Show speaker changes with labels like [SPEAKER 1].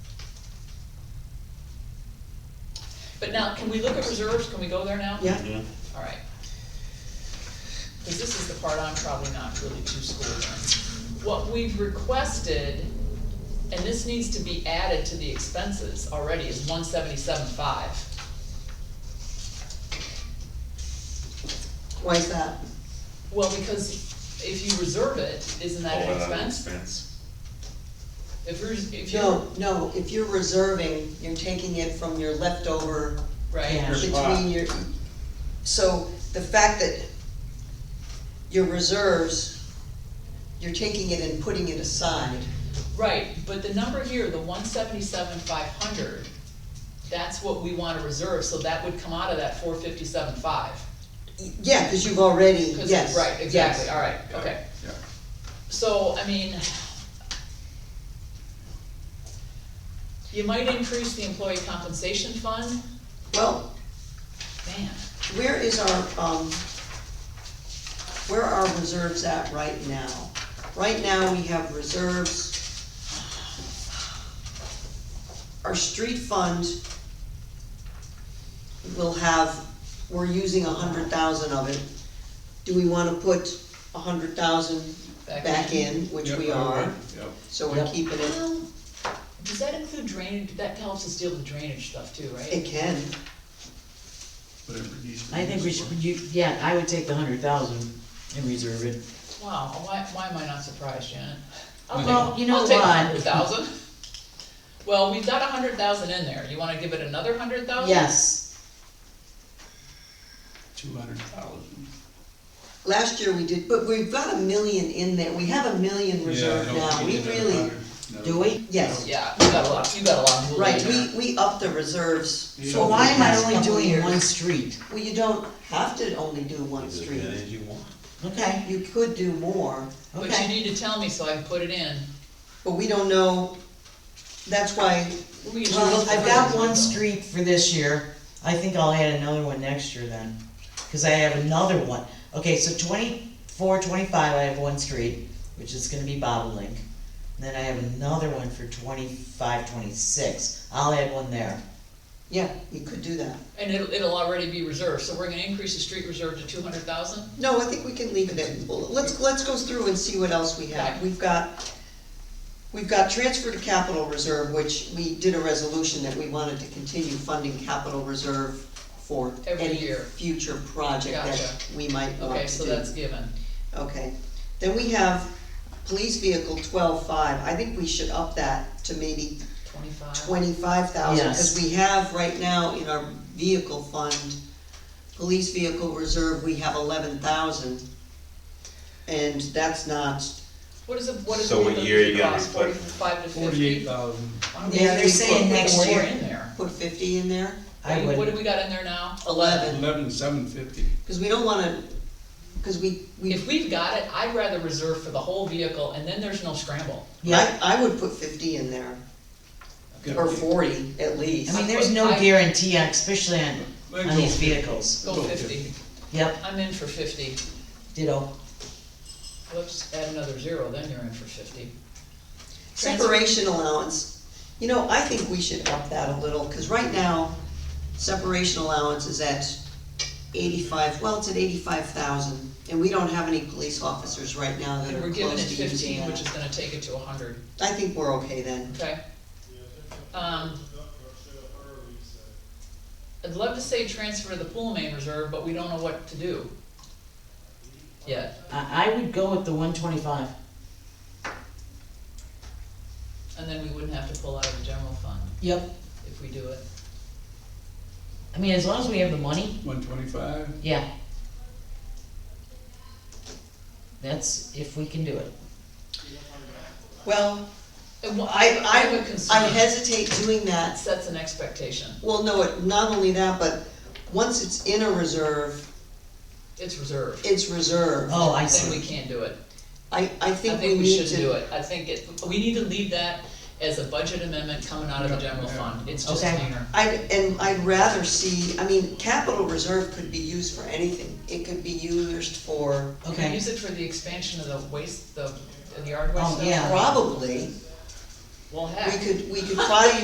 [SPEAKER 1] But now, can we look at reserves, can we go there now?
[SPEAKER 2] Yeah.
[SPEAKER 3] Yeah,
[SPEAKER 1] All right. Because this is the part I'm probably not really too schooled on. What we've requested, and this needs to be added to the expenses already, is one seventy-seven five.
[SPEAKER 2] Why is that?
[SPEAKER 1] Well, because if you reserve it, isn't that an
[SPEAKER 3] all that
[SPEAKER 1] expense?
[SPEAKER 3] uh, expense.
[SPEAKER 1] If you're, if you're,
[SPEAKER 2] No, no, if you're reserving, you're taking it from your leftover
[SPEAKER 1] right,
[SPEAKER 4] Yeah.
[SPEAKER 2] between your, so the fact that your reserves, you're taking it and putting it aside.
[SPEAKER 1] right, but the number here, the one seventy-seven five hundred, that's what we wanna reserve, so that would come out of that four fifty-seven five.
[SPEAKER 2] Y- Yeah, because you've already,
[SPEAKER 1] 'Cause-
[SPEAKER 2] yes.
[SPEAKER 1] Right, exactly,
[SPEAKER 2] yes.
[SPEAKER 1] all right,
[SPEAKER 3] Yeah,
[SPEAKER 1] okay.
[SPEAKER 3] Yeah,
[SPEAKER 1] So, I mean, you might increase the employee compensation fund,
[SPEAKER 2] Well,
[SPEAKER 1] man,
[SPEAKER 2] where is our, um, where are reserves at right now? Right now, we have reserves. Our street fund will have, we're using a hundred thousand of it. Do we wanna put a hundred thousand
[SPEAKER 1] Back
[SPEAKER 2] back
[SPEAKER 1] in.
[SPEAKER 2] in, which
[SPEAKER 3] Yep,
[SPEAKER 2] we
[SPEAKER 3] I
[SPEAKER 2] are,
[SPEAKER 3] agree. Yep.
[SPEAKER 2] so we're
[SPEAKER 4] Yep.
[SPEAKER 2] keeping it,
[SPEAKER 1] well, does that include drainage, that helps us deal with drainage stuff too,
[SPEAKER 2] it
[SPEAKER 1] right?
[SPEAKER 2] can,
[SPEAKER 3] Whatever it needs to
[SPEAKER 4] I
[SPEAKER 3] be
[SPEAKER 4] think we
[SPEAKER 3] used
[SPEAKER 4] should,
[SPEAKER 3] for.
[SPEAKER 4] you, yeah, I would take the hundred thousand and reserve it.
[SPEAKER 1] Wow, why, why am I not surprised, Janet? I'll
[SPEAKER 4] Okay.
[SPEAKER 1] take-
[SPEAKER 4] Oh, Well, you know
[SPEAKER 1] I'll take a
[SPEAKER 4] what?
[SPEAKER 1] hundred thousand. Well, we've got a hundred thousand in there, you wanna give it another hundred thousand?
[SPEAKER 4] Yes,
[SPEAKER 3] Two hundred thousand.
[SPEAKER 2] last year we did, but we've got a million in there, we have a million reserved now, we really,
[SPEAKER 4] do we?
[SPEAKER 2] yes.
[SPEAKER 1] Yeah, you got a lot, you got a lot of movement
[SPEAKER 2] Right,
[SPEAKER 1] there.
[SPEAKER 2] we, we upped the reserves.
[SPEAKER 3] Yeah.
[SPEAKER 4] So why am I
[SPEAKER 2] Last
[SPEAKER 4] only
[SPEAKER 2] couple
[SPEAKER 4] doing
[SPEAKER 2] years.
[SPEAKER 4] one street?
[SPEAKER 2] Well, you don't have to only do one
[SPEAKER 3] As
[SPEAKER 2] street.
[SPEAKER 3] many as you want.
[SPEAKER 4] Okay,
[SPEAKER 2] You could do more,
[SPEAKER 1] But you
[SPEAKER 4] okay.
[SPEAKER 1] need to tell me so I can put it in.
[SPEAKER 2] but we don't know, that's why,
[SPEAKER 1] We can
[SPEAKER 4] Well,
[SPEAKER 1] choose
[SPEAKER 4] I've
[SPEAKER 1] first.
[SPEAKER 4] got one street for this year, I think I'll add another one next year then, cause I have another one. Okay, so twenty-four, twenty-five, I have one street, which is gonna be bobolink. And Then I have another one for twenty-five, twenty-six, I'll add one there.
[SPEAKER 2] yeah, you could do that.
[SPEAKER 1] And it'll, it'll already be reserved, so we're gonna increase the street reserve to two hundred thousand?
[SPEAKER 2] No, I think we can leave it at, well, let's, let's go through and see what else we have.
[SPEAKER 1] Okay.
[SPEAKER 2] We've got, we've got transfer to capital reserve, which we did a resolution that we wanted to continue funding capital reserve for
[SPEAKER 1] Every
[SPEAKER 2] any
[SPEAKER 1] year.
[SPEAKER 2] future project that
[SPEAKER 1] Gotcha.
[SPEAKER 2] we might want to do.
[SPEAKER 1] Okay, so that's given.
[SPEAKER 2] Okay, then we have police vehicle twelve-five, I think we should up that to maybe
[SPEAKER 1] Twenty-five.
[SPEAKER 2] twenty-five thousand,
[SPEAKER 4] Yes.
[SPEAKER 2] cause we have right now in our vehicle fund, police vehicle reserve, we have eleven thousand. And that's not,
[SPEAKER 1] What is it, what is it?
[SPEAKER 3] So what year you gotta be putting-
[SPEAKER 1] Forty-five to fifty?
[SPEAKER 5] Forty-eight thousand.
[SPEAKER 1] Why don't we
[SPEAKER 4] Yeah,
[SPEAKER 1] just
[SPEAKER 4] they're
[SPEAKER 1] put
[SPEAKER 4] saying next
[SPEAKER 1] more
[SPEAKER 4] year.
[SPEAKER 1] in there?
[SPEAKER 2] put fifty in there,
[SPEAKER 4] I
[SPEAKER 1] What do
[SPEAKER 4] would,
[SPEAKER 1] we got in there now?
[SPEAKER 2] eleven,
[SPEAKER 5] Eleven seven fifty.
[SPEAKER 2] cause we don't wanna, cause we, we,
[SPEAKER 1] If we've got it, I'd rather reserve for the whole vehicle, and then there's no scramble.
[SPEAKER 4] yeah,
[SPEAKER 2] I, I would put fifty in there, or forty at least.
[SPEAKER 4] I mean, there's no guarantee, on especially on,
[SPEAKER 5] Let's
[SPEAKER 4] on
[SPEAKER 5] go
[SPEAKER 4] these
[SPEAKER 5] fifty.
[SPEAKER 4] vehicles.
[SPEAKER 1] Go
[SPEAKER 5] Go
[SPEAKER 1] fifty.
[SPEAKER 4] Yep,
[SPEAKER 1] I'm in for fifty.
[SPEAKER 4] ditto.
[SPEAKER 1] Let's add another zero, then you're in for fifty. Transfer-
[SPEAKER 2] Separation allowance, you know, I think we should up that a little, cause right now, separation allowance is at eighty-five, well, it's at eighty-five thousand, and we don't have any police officers right now that
[SPEAKER 1] And
[SPEAKER 2] are
[SPEAKER 1] we're giving it
[SPEAKER 2] close to using
[SPEAKER 1] fifteen,
[SPEAKER 2] that.
[SPEAKER 1] which is gonna take it to a hundred,
[SPEAKER 2] I think we're okay then,
[SPEAKER 1] okay? Um. I'd love to say transfer to the pool main reserve, but we don't know what to do. Yet.
[SPEAKER 4] I, I would go with the one twenty-five.
[SPEAKER 1] And then we wouldn't have to pull out of the general fund
[SPEAKER 4] Yep.
[SPEAKER 1] if we do it.
[SPEAKER 4] I mean, as long as we have the money,
[SPEAKER 5] One twenty-five,
[SPEAKER 4] yeah. That's if we can do it.
[SPEAKER 2] well,
[SPEAKER 1] And wha-
[SPEAKER 2] I,
[SPEAKER 1] I have a
[SPEAKER 2] I, I
[SPEAKER 1] concern.
[SPEAKER 2] hesitate doing
[SPEAKER 1] That
[SPEAKER 2] that,
[SPEAKER 1] sets an expectation,
[SPEAKER 2] well, no, it, not only that, but once it's in a reserve,
[SPEAKER 1] it's reserved,
[SPEAKER 2] it's reserved.
[SPEAKER 4] Oh, I
[SPEAKER 1] then we
[SPEAKER 4] see.
[SPEAKER 1] can't do it.
[SPEAKER 2] I, I
[SPEAKER 1] I
[SPEAKER 2] think we
[SPEAKER 1] think we
[SPEAKER 2] need
[SPEAKER 1] shouldn't do
[SPEAKER 2] to,
[SPEAKER 1] it, I think it, we need to leave that as a budget amendment coming out of the general fund, it's just
[SPEAKER 4] Okay.
[SPEAKER 1] cleaner.
[SPEAKER 2] I, and I'd rather see, I mean, capital reserve could be used for anything, it could be used for,
[SPEAKER 1] Can we
[SPEAKER 4] Okay,
[SPEAKER 1] Use it for the expansion of the waste, the, the yard waste
[SPEAKER 4] Oh,
[SPEAKER 1] stuff?
[SPEAKER 4] yeah.
[SPEAKER 2] probably,
[SPEAKER 1] Well,
[SPEAKER 2] we
[SPEAKER 1] heck.
[SPEAKER 2] could, we could probably